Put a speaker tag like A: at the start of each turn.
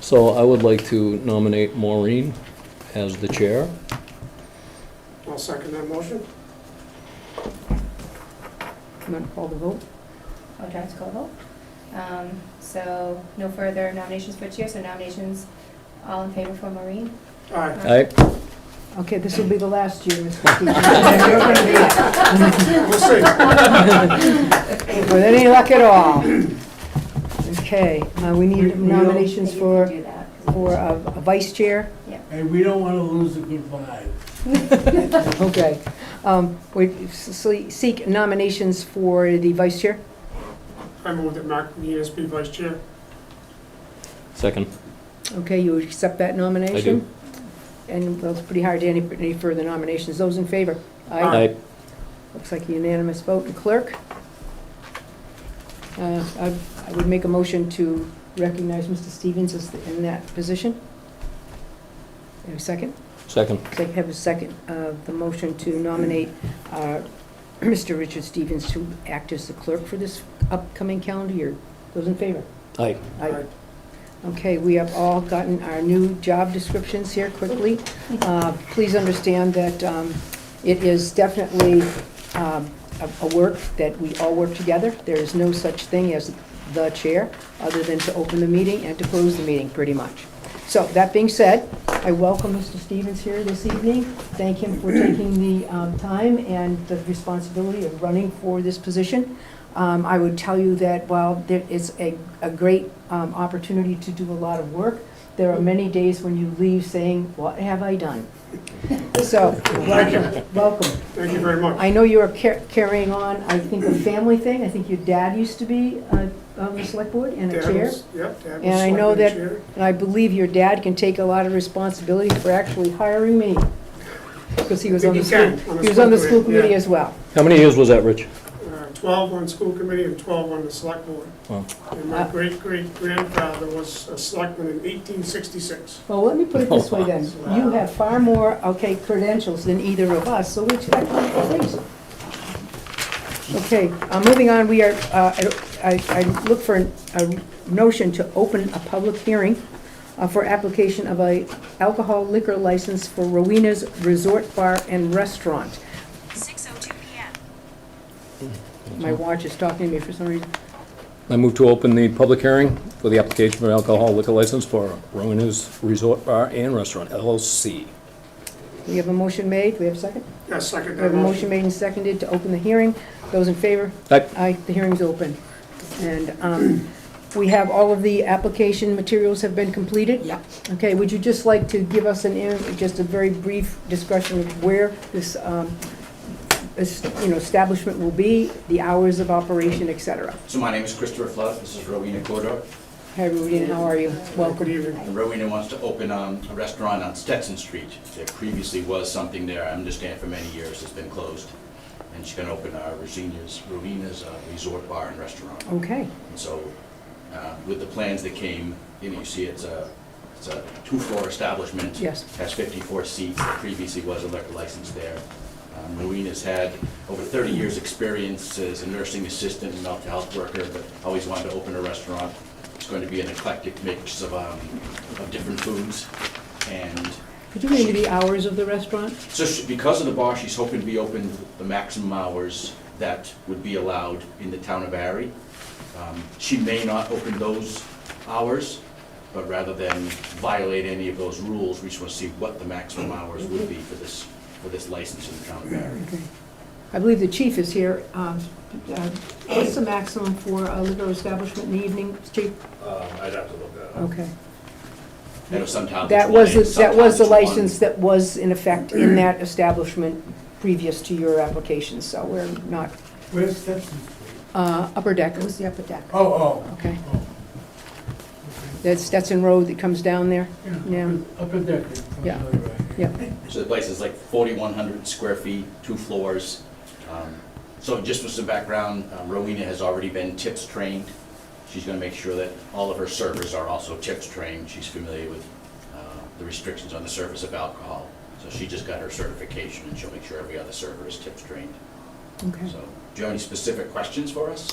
A: So I would like to nominate Maureen as the chair.
B: I'll second that motion.
C: You want to call the vote?
D: I would like to call a vote. Um, So no further nominations for chair, so nominations, all in favor for Maureen?
B: Aye.
A: Aye.
C: Okay, this will be the last year, Ms. Kukis. You're going to be it.
B: We'll see.
C: With any luck at all. Okay, uh, we need nominations for,
D: You can do that, 'cause-
C: for a a vice chair.
E: And we don't want to lose the good vibe.
C: Okay. Um, We s- seek nominations for the vice chair.
B: I move that Mark Nias be vice chair.
A: Second.
C: Okay, you accept that nomination?
A: I do.
C: And that's pretty hard, any, any further nominations, those in favor?
B: Aye.
A: Aye.
C: Looks like a unanimous vote, and clerk? Uh, I I would make a motion to recognize Mr. Stevens as the- in that position. Have a second?
A: Second.
C: Sec- Have a second, uh, the motion to nominate uh, Mr. Richard Stevens to act as the clerk for this upcoming calendar year. Those in favor?
A: Aye.
C: Aye. Okay, we have all gotten our new job descriptions here quickly. Uh, Please understand that um, it is definitely um, a a work that we all work together. There is no such thing as the chair, other than to open the meeting and to close the meeting, pretty much. So, that being said, I welcome Mr. Stevens here this evening, thank him for taking the um, time and the responsibility of running for this position. Um, I would tell you that while there is a, a great um, opportunity to do a lot of work, there are many days when you leave saying, what have I done? So, welcome, welcome.
B: Thank you very much.
C: I know you're car- carrying on, I think, a family thing. I think your dad used to be uh, on the select board and a
B: Dad
C: chair.
B: was- Yep, Dad was
C: And I know
B: selected
C: that-
B: chair.
C: And I believe your dad can take a lot of responsibility for actually hiring me, because he was on the
B: He
C: school,
B: can, on the
C: he was on the
B: school
C: school
B: committee,
C: committee
B: yeah.
C: as well.
A: How many years was that, Rich?
B: Uh, 12 on school committee and 12 on the select board.
A: Wow.
B: And my
C: Uh,
B: great-great-grandfather was a selectman in 1866.
C: Well, let me put it this way then, you have far more, okay, credentials than either of us, so we expect you to please. Okay, uh, moving on, we are, uh, I I look for a notion to open a public hearing uh, for application of a alcohol liquor license for Rowena's Resort Bar and Restaurant.
F: 6:02 PM.
C: My watch is talking to me for some reason.
A: I move to open the public hearing for the application for alcohol liquor license for Rowena's Resort Bar and Restaurant LLC.
C: We have a motion made, we have a second?
B: Yeah, second
C: We have
B: that
C: a motion
B: motion.
C: made and seconded to open the hearing. Those in favor?
A: Aye.
C: Aye, the hearing's open. And um, we have, all of the application materials have been completed? Yeah. Okay, would you just like to give us an, in- just a very brief discussion of where this, um, this, you know, establishment will be, the hours of operation, et cetera?
G: So my name is Christopher Flood, this is Rowena Cordo,
C: Hi, Rudine, how are you?
B: Good
C: Welcome.
B: evening.
G: and Rowena wants to open um, a restaurant on Stetson Street. There previously was something there, I understand for many years, it's been closed. And she's gonna open our Rowena's, Rowena's uh, Resort Bar and Restaurant.
C: Okay,
G: And so, uh, with the plans that came, you know, you see it's a, it's a two-floor establishment.
C: Yes.
G: Has 54 seats, There previously was a liquor license there. Um, Marina's had over 30 years' experience as a nursing assistant and mental health worker, but always wanted to open a restaurant. It's going to be an eclectic mix of, um, of different foods. And
C: could you give me the hours of the restaurant?
G: so she- because of the bar, she's hoping to be open the maximum hours that would be allowed in the town of Barry. Um, She may not open those hours, but rather than violate any of those rules, we just want to see what the maximum hours would be for this, for this license in the town of Barry.
C: Okay. I believe the chief is here. Um, uh, What's the maximum for a liquor establishment in the evening, chief?
H: I'd have to look that up.
C: Okay.
G: I know sometimes it's
C: That
G: one
C: was,
G: day,
C: the- that was
G: sometimes
C: the
G: it's one-
C: license that was in effect in that establishment previous to your application, so we're not,
E: Where's Stetson Street?
C: uh, upper deck. It was the upper deck.
E: Oh, oh.
C: Okay.
E: oh.
C: That's Stetson Road that comes down there?
E: Okay.
C: Yeah.
E: Up in there.
C: Yeah.
G: So the place is like 4,100 square feet, two floors. Um, So just for some background, um, Rowena has already been tips trained. She's going to make sure that all of her servers are also tips trained. She's familiar with uh, the restrictions on the service of alcohol. So she just got her certification, and she'll make sure every other server is tips trained.
C: Okay.
G: So, do you have any specific questions for us?